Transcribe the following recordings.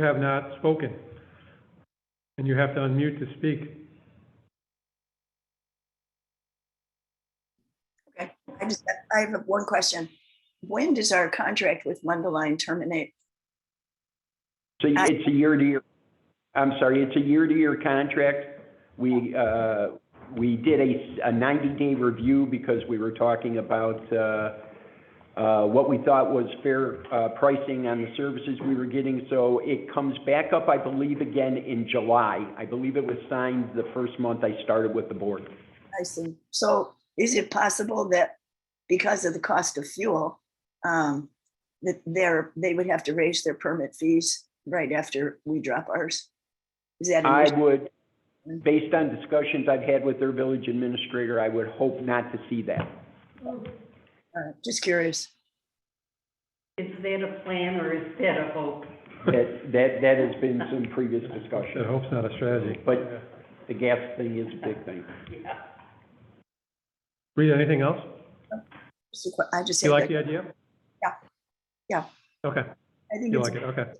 have not spoken. And you have to unmute to speak. I just, I have one question. When does our contract with Mundaline terminate? So I- it's a year-to-year, I'm sorry, it's a year-to-year contract. We, uh, we did a, a 90-day review because we were talking about, uh, uh, what we thought was fair, uh, pricing on the services we were getting. So it comes back up, I believe, again in July. I believe it was signed the first month I started with the board. I see. So is it possible that because of the cost of fuel, um, that they're, they would have to raise their permit fees right after we drop ours? Is that? an I issue? would, based on discussions I've had with their village administrator, I would hope not to see that. Uh, Just curious. Is that a plan or is that a hope? That, that, that has been some previous discussion. I hope's not a strategy. But the gas thing is a big thing. Rita, anything else? Just a que- I just. You have like that- the idea? Yeah. Yeah. Okay, I think you it's, like it, okay.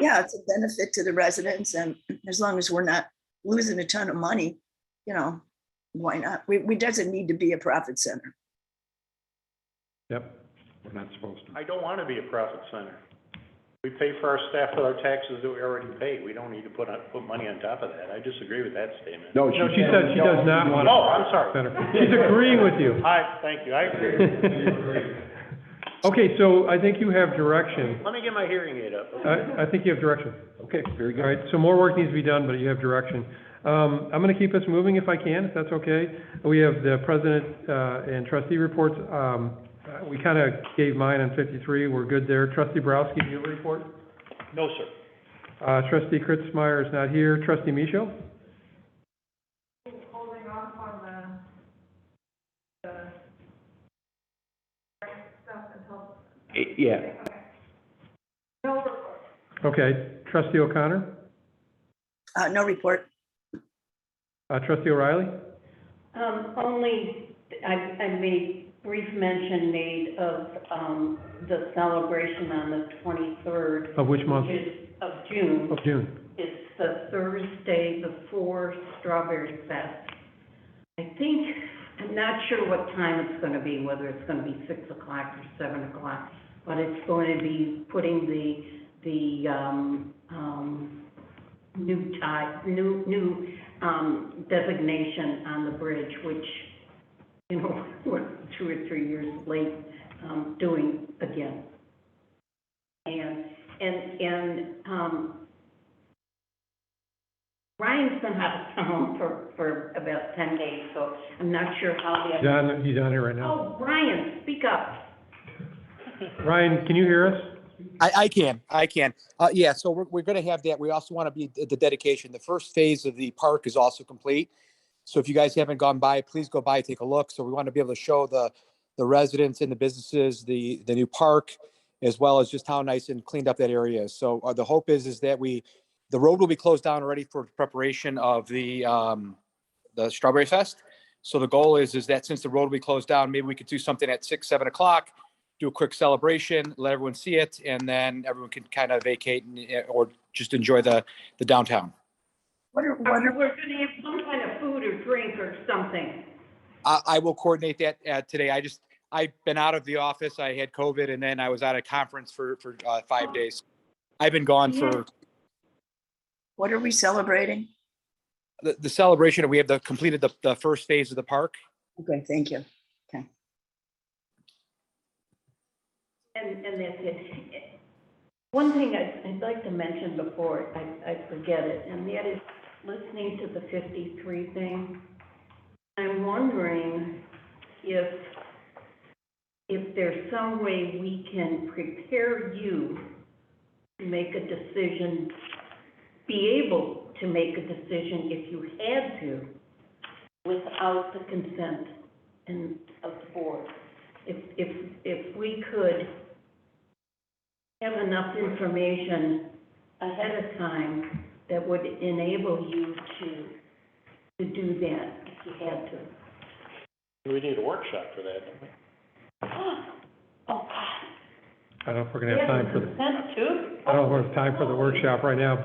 yeah, it's a benefit to the residents and as long as we're not losing a ton of money, you know, why not? We, we doesn't need to be a profit center. Yep, We're not supposed to. I don't want to be a profit center. We pay for our staff with our taxes that we already pay. We don't need to put, on- put money on top of that. I disagree with that statement. No, No, she said she does not want Oh, I'm sorry. better. She's agreeing with you. Hi, thank you. I agree. Okay, so I think you have direction. Let me get my hearing aid up. I, I think you have direction. Okay, very All good. right, so more work needs to be done, but you have direction. Um, I'm gonna keep us moving if I can, if that's okay. We have the president, uh, and trustee reports. Um, uh, we kinda gave mine on fifty-three, we're good there. Trustee Borowski, do you have a report? No, sir. Uh, trustee Kritzmeyer is not here. Trustee Micho? holding off on the, the stuff until, Eh, Yeah, no report. Okay. Trustee O'Connor? Uh, no report. Uh, trustee O'Reilly? Um, only, I, I made brief mention made of, um, the celebration on the twenty-third, Of which month? which is of June. Of June. It's the Thursday before Strawberry Fest. I think, I'm not sure what time it's gonna be, whether it's gonna be six o'clock or seven o'clock, but it's going to be putting the, the, um, um, new type, new, new, um, designation on the bridge, which, you know, we're two or three years late, um, doing again. And, and, and, um, Ryan's been out of town for, for about ten days, so I'm not sure how the. John, he's on here right now. Oh, Ryan, speak up. Ryan, can you hear us? I, I can, I can. Uh, yeah, so we're, we're gonna have that. We also want to be at the dedication. The first phase of the park is also complete. So if you guys haven't gone by, please go by, take a look. So we want to be able to show the, the residents and the businesses, the, the new park, as well as just how nice and cleaned up that area is. So uh, the hope is, is that we, the road will be closed down already for preparation of the, um, the Strawberry Fest. So the goal is, is that since the road will be closed down, maybe we could do something at six, seven o'clock, do a quick celebration, let everyone see it, and then everyone can kind of vacate and, eh, or just enjoy the, the downtown. What are, what We're are, we're gonna have some kind of food or drink or something. I, I will coordinate that uh, today. I just, I've been out of the office. I had COVID and then I was at a conference for, for uh, five days. I've been gone for what are we celebrating? the, the celebration. We have the completed the, the first phase of the park. Okay, thank you. And, and that's it. One thing I'd, I'd like to mention before I, I forget it, and that is listening to the fifty-three thing. I'm wondering if, if there's some way we can prepare you to make a decision, be able to make a decision if you had to, without the consent and of the board if, if, if we could have enough information ahead of time that would enable you to, to do that if you had to. We need a workshop for that. don't we? Oh, God. I don't know if we're gonna have time for, the That's true. I don't know if we have time for the workshop right now,